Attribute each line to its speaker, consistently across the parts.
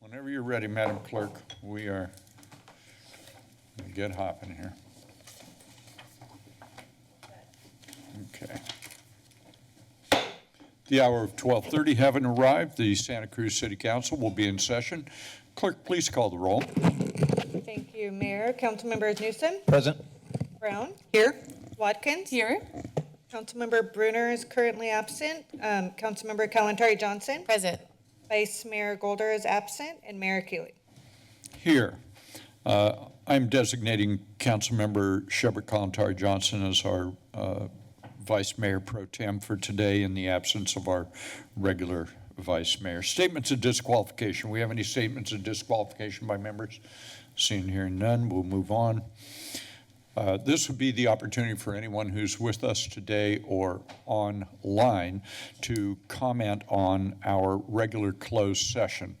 Speaker 1: Whenever you're ready, Madam Clerk, we are, get hopping here. Okay. The hour of 12:30 having arrived, the Santa Cruz City Council will be in session. Clerk, please call the roll.
Speaker 2: Thank you, Mayor. Councilmember Newsom,
Speaker 3: Present.
Speaker 2: Brown,
Speaker 4: Here?
Speaker 2: Watkins.
Speaker 4: Here.
Speaker 2: Councilmember Brunner is currently absent. Um, Councilmember Kalentari Johnson,
Speaker 4: Present.
Speaker 2: Vice Mayor Golder is absent, and Mayor Keeley.
Speaker 1: Here, uh, I'm designating Councilmember Shepard Colantar Johnson as our uh, Vice Mayor Pro Tem for today in the absence of our regular Vice Mayor. Statements of disqualification, we have any statements of disqualification by members? Seeing and hearing none, we'll move on. Uh, This would be the opportunity for anyone who's with us today or online to comment on our regular closed session.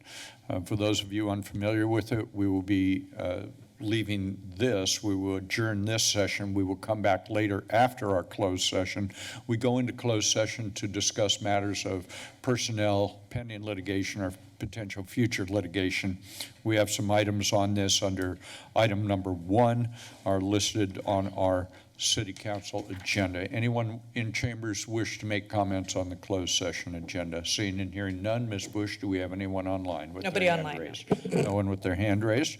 Speaker 1: Uh, For those of you unfamiliar with it, we will be uh, leaving this, we will adjourn this session, we will come back later after our closed session. We go into closed session to discuss matters of personnel, pending litigation, or potential future litigation. We have some items on this under item number one are listed on our city council agenda. Anyone in chambers wish to make comments on the closed session agenda? Seeing and hearing none, Ms. Bush, do we have anyone online with their
Speaker 2: Nobody
Speaker 1: hand
Speaker 2: online, no.
Speaker 1: raised? No one with their hand raised?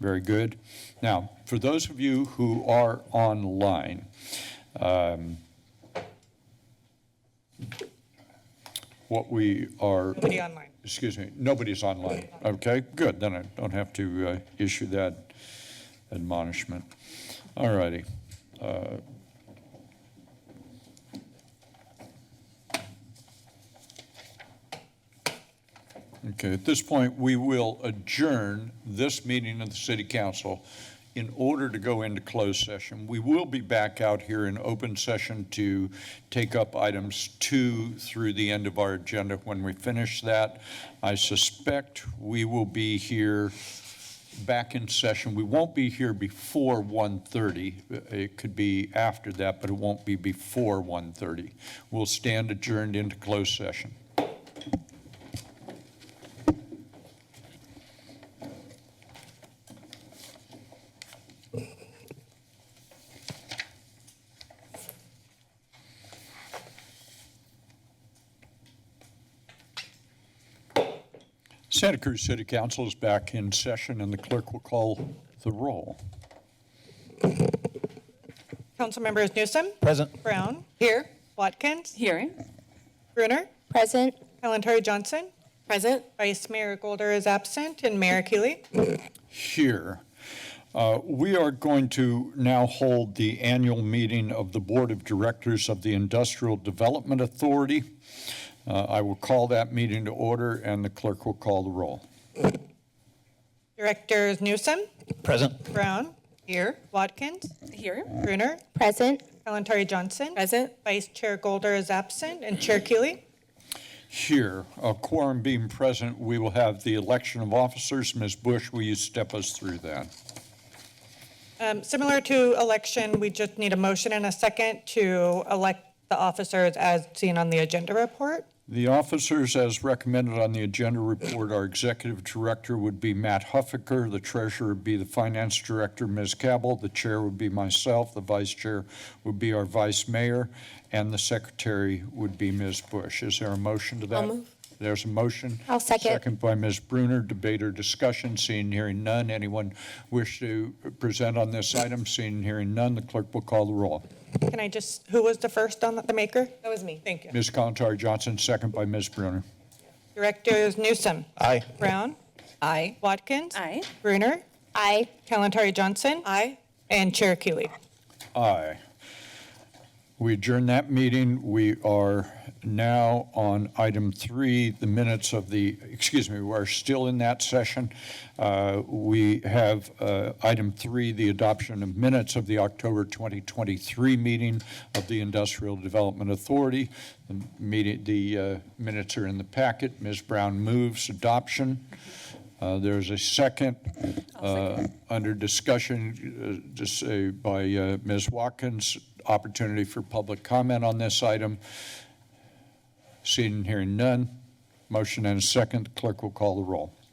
Speaker 1: Very good. Now, for those of you who are online, what we are
Speaker 2: Nobody online.
Speaker 1: excuse me, nobody's online. Okay, good, then I don't have to uh, issue that admonishment. All righty. Uh, Okay, at this point, we will adjourn this meeting of the city council in order to go into closed session. We will be back out here in open session to take up items two through the end of our agenda. When we finish that, I suspect we will be here back in session. We won't be here before 1:30. It could be after that, but it won't be before 1:30. We'll stand adjourned into closed session. Santa Cruz City Council is back in session, and the clerk will call the roll.
Speaker 2: Councilmembers Newsom,
Speaker 3: Present.
Speaker 2: Brown,
Speaker 4: Here.
Speaker 2: Watkins,
Speaker 4: Here.
Speaker 2: Brunner,
Speaker 4: Present.
Speaker 2: Kalentari Johnson,
Speaker 4: Present.
Speaker 2: Vice Mayor Golder is absent, and Mayor Keeley.
Speaker 1: here. Uh, We are going to now hold the annual meeting of the Board of Directors of the Industrial Development Authority. Uh, I will call that meeting to order, and the clerk will call the roll.
Speaker 2: Directors Newsom,
Speaker 3: Present.
Speaker 2: Brown,
Speaker 4: Here.
Speaker 2: Watkins,
Speaker 4: Here.
Speaker 2: Brunner,
Speaker 4: Present.
Speaker 2: Kalentari Johnson,
Speaker 4: Present.
Speaker 2: Vice Chair Golder is absent, and Chair Keeley.
Speaker 1: Here, a quorum being present, we will have the election of officers. Ms. Bush, will you step us through that?
Speaker 2: Um, Similar to election, we just need a motion and a second to elect the officers as seen on the agenda report.
Speaker 1: The officers, as recommended on the agenda report, our executive director would be Matt Huffaker, the treasurer would be the finance director, Ms. Cabell, the chair would be myself, the vice chair would be our vice mayor, and the secretary would be Ms. Bush. Is there a motion to that? There's a motion.
Speaker 5: I'll second.
Speaker 1: Second by Ms. Bruner. Debate or discussion, seeing and hearing none. Anyone wish to present on this item, seeing and hearing none, the clerk will call the roll.
Speaker 2: Can I just, who was the first on the- the maker?
Speaker 4: That was me.
Speaker 2: Thank you.
Speaker 1: Ms. Contari Johnson, second by Ms. Bruner.
Speaker 2: Directors Newsom,
Speaker 3: Aye.
Speaker 2: Brown,
Speaker 4: Aye.
Speaker 2: Watkins.
Speaker 4: Aye.
Speaker 2: Brunner,
Speaker 5: Aye.
Speaker 2: Kalentari Johnson.
Speaker 4: Aye.
Speaker 2: And Chair Keeley.
Speaker 1: Aye. We adjourn that meeting. We are now on item three, the minutes of the, excuse me, we're still in that session. Uh, We have uh, item three, the adoption of minutes of the October 2023 meeting of the Industrial Development Authority. The meeting, the uh, minutes are in the packet. Ms. Brown moves adoption. Uh, There's a second uh, under discussion, uh, just say by uh, Ms. Watkins, opportunity for public comment on this item. Seeing and hearing none, motion and a second, clerk will call the roll.